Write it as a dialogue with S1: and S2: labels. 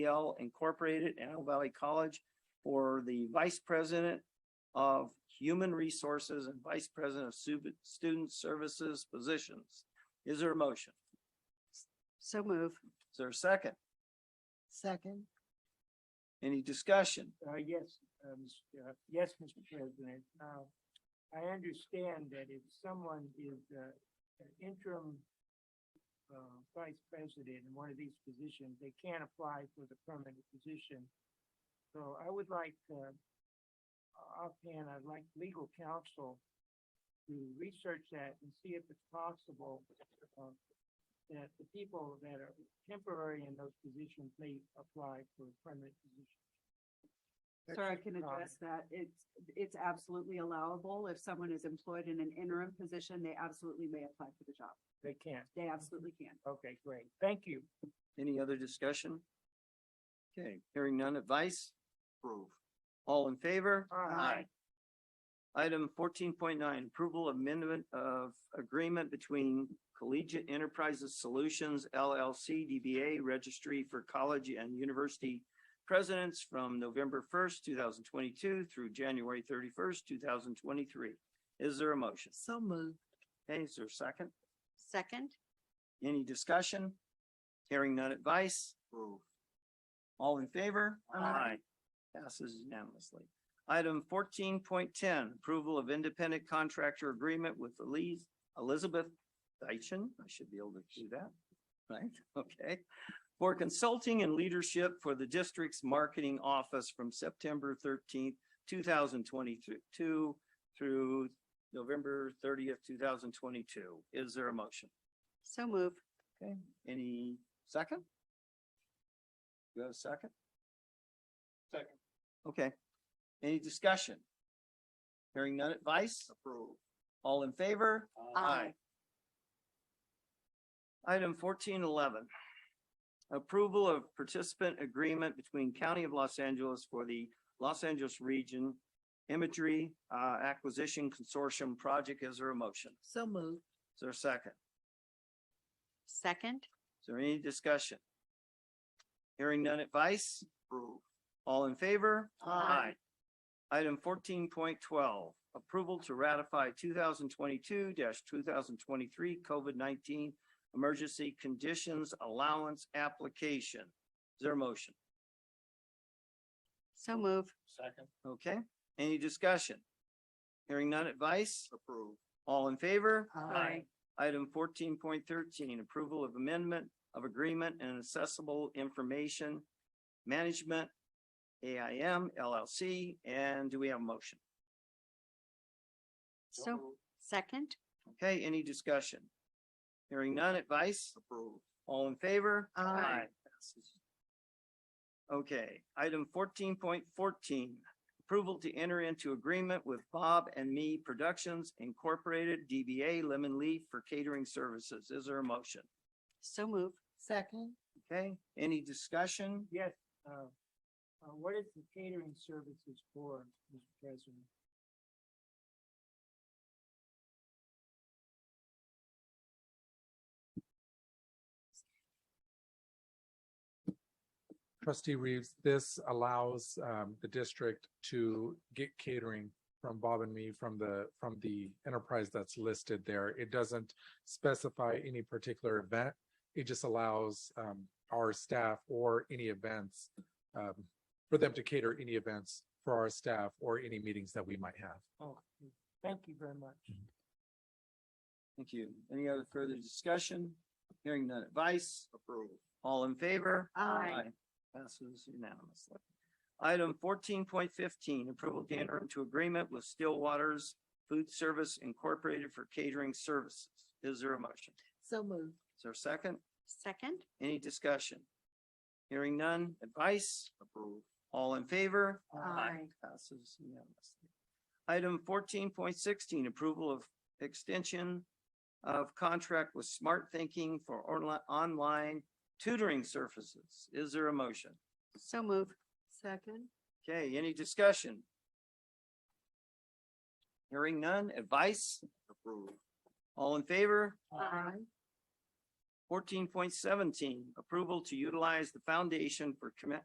S1: L Incorporated, Antelope Valley College, for the Vice President of Human Resources and Vice President of Stu- Student Services positions. Is there a motion?
S2: So move.
S1: Is there a second?
S2: Second.
S1: Any discussion?
S3: Uh, yes, uh, Ms- uh, yes, Mr. President. Uh, I understand that if someone is, uh, an interim, uh, vice president in one of these positions, they can't apply for the permanent position. So I would like, uh, offhand, I'd like legal counsel to research that and see if it's possible, uh, that the people that are temporary in those positions may apply for permanent positions.
S2: Sir, I can
S3: Um,
S2: address that. It's, it's absolutely allowable. If someone is employed in an interim position, they absolutely may apply for the job.
S3: They can't.
S2: They absolutely can.
S3: Okay, great. Thank you.
S1: Any other discussion? Okay, hearing none advice? Approve. All in favor?
S3: Aye.
S1: Item fourteen point nine, approval amendment of agreement between Collegiate Enterprises Solutions LLC DBA Registry for College and University Presidents from November first, two thousand twenty-two through January thirty-first, two thousand twenty-three. Is there a motion?
S2: So move.
S1: Okay, is there a second?
S2: Second.
S1: Any discussion? Hearing none advice? All in favor?
S2: Aye.
S1: Passes unanimously. Item fourteen point ten, approval of independent contractor agreement with Elise Elizabeth Deitchen. I should be able to do that, right? Okay. For consulting and leadership for the district's marketing office from September thirteenth, two thousand twenty-two through November thirtieth, two thousand twenty-two. Is there a motion?
S2: So move.
S1: Okay, any second? You have a second?
S3: Second.
S1: Okay, any discussion? Hearing none advice? Approved. All in favor?
S2: Aye.
S1: Item fourteen eleven. Approval of participant agreement between County of Los Angeles for the Los Angeles Region Imagery uh, Acquisition Consortium Project. Is there a motion?
S2: So move.
S1: Is there a second?
S2: Second.
S1: Is there any discussion? Hearing none advice? All in favor?
S2: Aye.
S1: Item fourteen point twelve, approval to ratify two thousand twenty-two two thousand twenty-three COVID nineteen emergency conditions allowance application. Is there a motion?
S2: So move.
S3: Second.
S1: Okay, any discussion? Hearing none advice?
S3: Approved.
S1: All in favor?
S2: Aye.
S1: Item fourteen point thirteen, approval of amendment of agreement and accessible information management, AIM LLC, and do we have a motion?
S2: So, second.
S1: Okay, any discussion? Hearing none advice?
S3: Approved.
S1: All in favor?
S2: Aye.
S1: Passes. Okay, item fourteen point fourteen, approval to enter into agreement with Bob and Me Productions Incorporated, DBA Lemon Leaf for catering services. Is there a motion?
S2: So move. Second.
S1: Okay, any discussion?
S3: Yes, uh, uh, what is the catering services for, Mr. President?
S4: Trustee Reeves, this allows um the district to get catering from Bob and me from the, from the enterprise that's listed there. It doesn't specify any particular event. It just allows um our staff or any events um for them to cater any events for our staff or any meetings that we might have.
S3: Oh, thank you very much.
S1: Thank you. Any other further discussion? Hearing none advice? Approved. All in favor?
S2: Aye.
S1: Passes unanimously. Item fourteen point fifteen, approval to enter into agreement with Stillwater's Food Service Incorporated for catering services. Is there a motion?
S2: So move.
S1: Is there a second?
S2: Second.
S1: Any discussion? Hearing none, advice? Approved. All in favor?
S2: Aye.
S1: Passes unanimously. Item fourteen point sixteen, approval of extension of contract with Smart Thinking for orla- online tutoring services. Is there a motion?
S2: So move. Second.
S1: Okay, any discussion? Hearing none, advice? Approved. All in favor? Fourteen point seventeen, approval to utilize the Foundation for Commu-